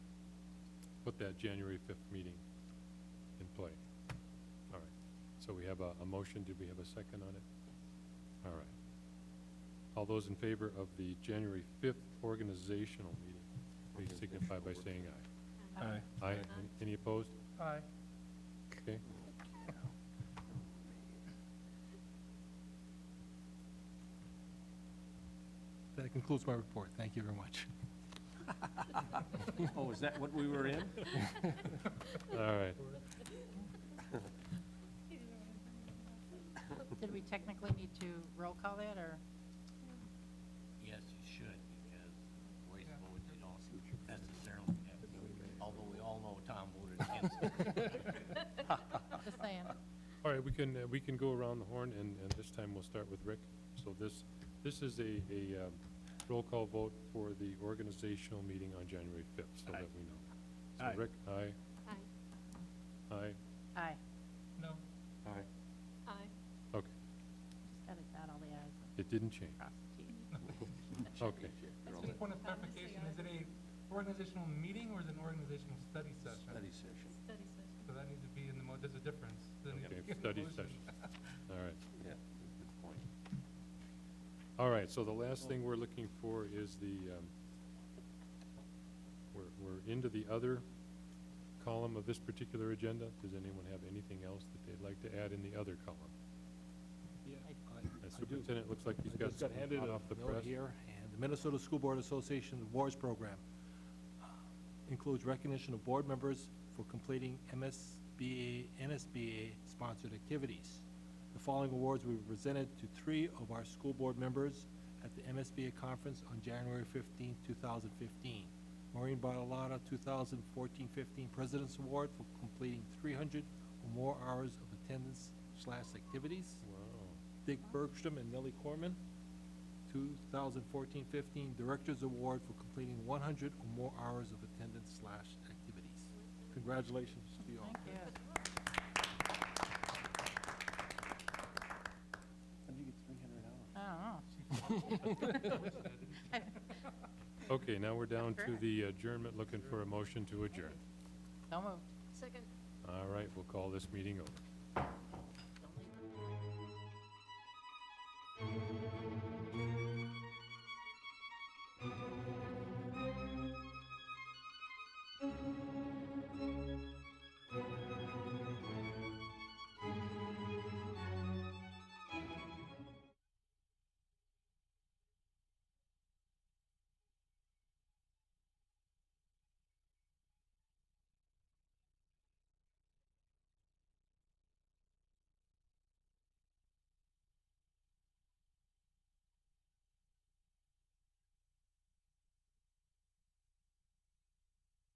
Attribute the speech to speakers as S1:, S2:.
S1: put that January 5th meeting in play. All right. So we have a, a motion. Did we have a second on it? All right. All those in favor of the January 5th organizational meeting, please signify by saying aye.
S2: Aye.
S1: Aye. Any opposed?
S2: Aye.
S1: Okay.
S3: That concludes my report. Thank you very much.
S4: Oh, is that what we were in?
S1: All right.
S5: Did we technically need to roll call that, or?
S4: Yes, you should, because voice vote, they don't necessarily have, although we all know Tom voted against it.
S5: Just saying.
S1: All right, we can, uh, we can go around the horn, and, and this time we'll start with Rick. So this, this is a, a um, roll call vote for the organizational meeting on January 5th, so
S4: Aye.
S1: that we know. So
S4: Aye.
S1: Rick, aye, aye,
S6: Aye.
S5: Aye.
S2: No.
S4: Aye.
S6: Aye.
S1: okay,
S5: Just got it down, all the ayes and
S1: it didn't change,
S5: cross the t's.
S1: okay.
S2: Just a point of clarification, is it a organizational meeting or is it an organizational study session?
S4: Study session,
S6: Study session.
S2: So that needs to be in the mo, there's a difference. That needs to
S1: Okay,
S2: be in the
S1: study
S2: motion.
S1: session. All right,
S4: yeah, good point.
S1: all right, so the last thing we're looking for is the, um, we're, we're into the other column of this particular agenda. Does anyone have anything else that they'd like to add in the other column?
S7: Yeah,
S1: Uh,
S7: I- I do.
S1: Superintendent, looks like he's
S7: I
S1: got
S7: just got
S1: something
S7: handed
S1: hot
S7: a
S1: off the
S7: note
S1: press.
S7: here, and the Minnesota School Board Association Awards Program uh, includes recognition of board members for completing MSBA, NSBA-sponsored activities. The following awards will be presented to three of our school board members at the MSBA conference on January 15, 2015. Maureen Bartolotta, 2014-15 President's Award for completing 300 or more hours of attendance slash activities.
S1: Wow,
S7: Dick Bergstrom and Nellie Corman. 2014-15 Director's Award for completing 100 or more hours of attendance slash activities. Congratulations to you all.
S5: Thank you.
S4: How'd you get three hundred hours?
S5: I don't know.
S1: okay, now we're down to
S5: Correct.
S1: the adjournment, looking for a motion to adjourn.
S5: So moved.
S6: Second.
S1: All right, we'll call this meeting over.